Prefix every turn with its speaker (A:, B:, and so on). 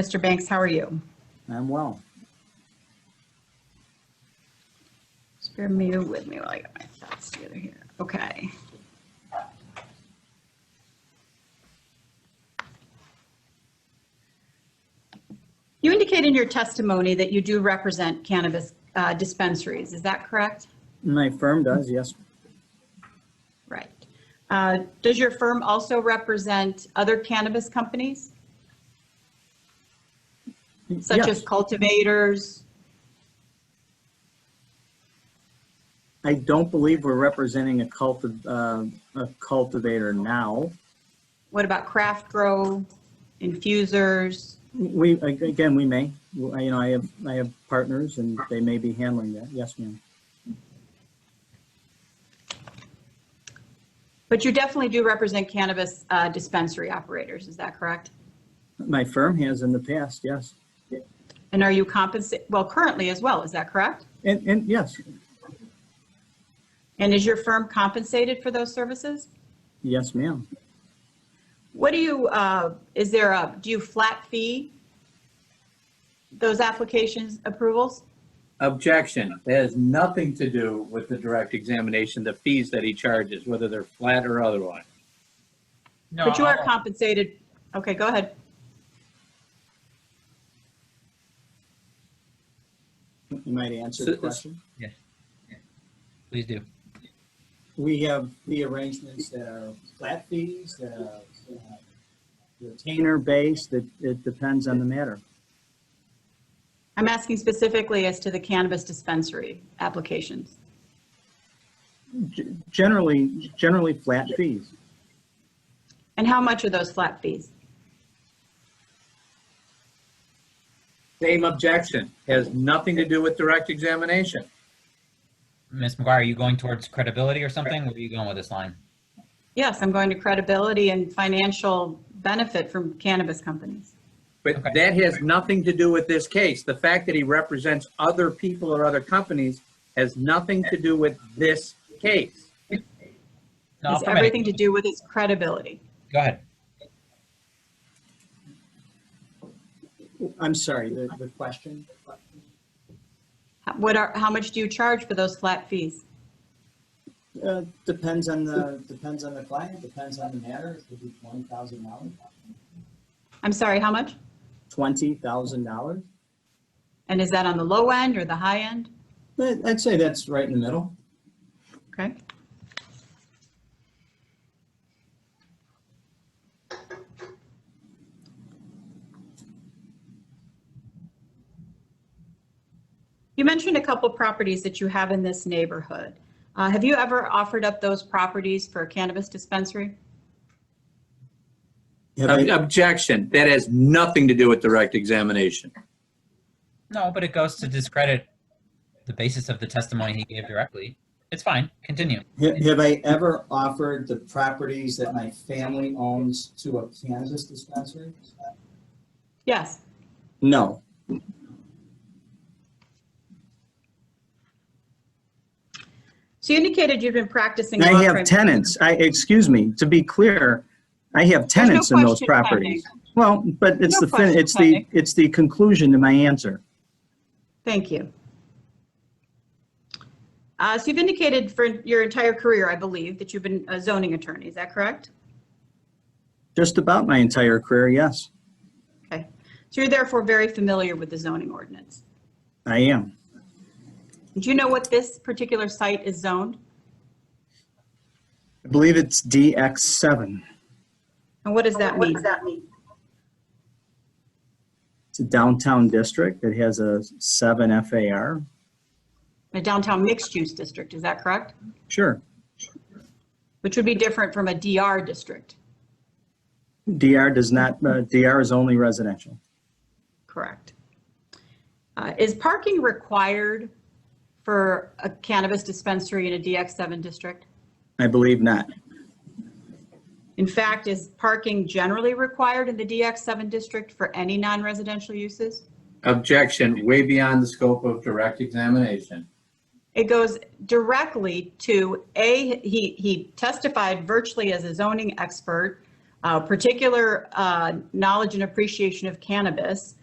A: Mr. Banks, how are you?
B: I'm well.
A: Just bear me with me while I get my thoughts together here. Okay. You indicate in your testimony that you do represent cannabis uh, dispensaries, is that correct?
B: My firm does, yes.
A: Right. Uh, Does your firm also represent other cannabis companies, such
B: Yes,
A: as cultivators?
B: I don't believe we're representing a culti- uh, a cultivator now.
A: What about craft grow, infusers?
B: We, ag- again, we may, Well, I- you know, I have, I have partners and they may be handling that. Yes, ma'am.
A: But you definitely do represent cannabis uh, dispensary operators, is that correct?
B: My firm has in the past, yes.
A: And are you compensated, well, currently as well, is that correct?
B: And, and yes,
A: And is your firm compensated for those services?
B: yes, ma'am.
A: What do you, uh, is there a, do you flat fee those applications approvals?
C: Objection. It has nothing to do with the direct examination, the fees that he charges, whether they're flat or otherwise.
D: No,
A: But you are
D: I'll-
A: compensated, okay, go ahead.
B: You might answer the
C: So-
B: question.
D: Please do.
B: We have the arrangements that are flat fees, that are uh, retainer-based, that it depends on the matter.
A: I'm asking specifically as to the cannabis dispensary applications.
B: G- Generally, generally flat fees.
A: And how much are those flat fees?
C: Same objection. Has nothing to do with direct examination.
D: Ms. McGuire, are you going towards credibility or something? Where are you going with this line?
A: Yes, I'm going to credibility and financial benefit from cannabis companies.
C: But
D: Okay.
C: that has nothing to do with this case. The fact that he represents other people or other companies has nothing to do with this case.
D: No,
A: It's
D: affirmative.
A: everything to do with its credibility.
D: Go ahead.
B: I'm sorry, the, the question?
A: What are, how much do you charge for those flat fees?
B: Uh, Depends on the, depends on the client, depends on the matter, it could be twenty thousand dollars.
A: I'm sorry, how much?
B: Twenty thousand dollars?
A: And is that on the low end or the high end?
B: I'd say that's right in the middle.
A: Okay. You mentioned a couple properties that you have in this neighborhood. Uh, Have you ever offered up those properties for a cannabis dispensary?
C: Ob- Objection. That has nothing to do with direct examination.
D: No, but it goes to discredit the basis of the testimony he gave directly. It's fine. Continue.
E: Ha- Have I ever offered the properties that my family owns to a cannabis dispensary?
A: Yes.
B: No,
A: So you indicated you've been practicing. law
B: I have
A: firm-
B: tenants, I, excuse me, to be clear, I
A: There's
B: have
A: no
B: tenants in those
A: question
B: properties. Well, but it's
A: No
B: the, fin-
A: question
B: it's the,
A: pending.
B: it's the conclusion to my answer.
A: Thank you. Uh, So you've indicated for your entire career, I believe, that you've been a zoning attorney, is that correct?
B: Just about my entire career, yes,
A: Okay. So you're therefore very familiar with the zoning ordinance.
B: I am.
A: Do you know what this particular site is zoned?
B: I believe it's DX seven.
A: And what does that mean?
B: It's a downtown district that has a seven FAR.
A: A downtown mixed-use district, is that correct?
B: Sure,
A: Which would be different from a DR district,
B: DR does not, uh, DR is only residential.
A: correct? Uh, Is parking required for a cannabis dispensary in a DX7 district?
B: I believe not.
A: In fact, is parking generally required in the DX7 district for any non-residential uses?
C: Objection. Way beyond the scope of direct examination.
A: It goes directly to, A, he, he testified virtually as a zoning expert uh, particular uh, knowledge and appreciation of cannabis,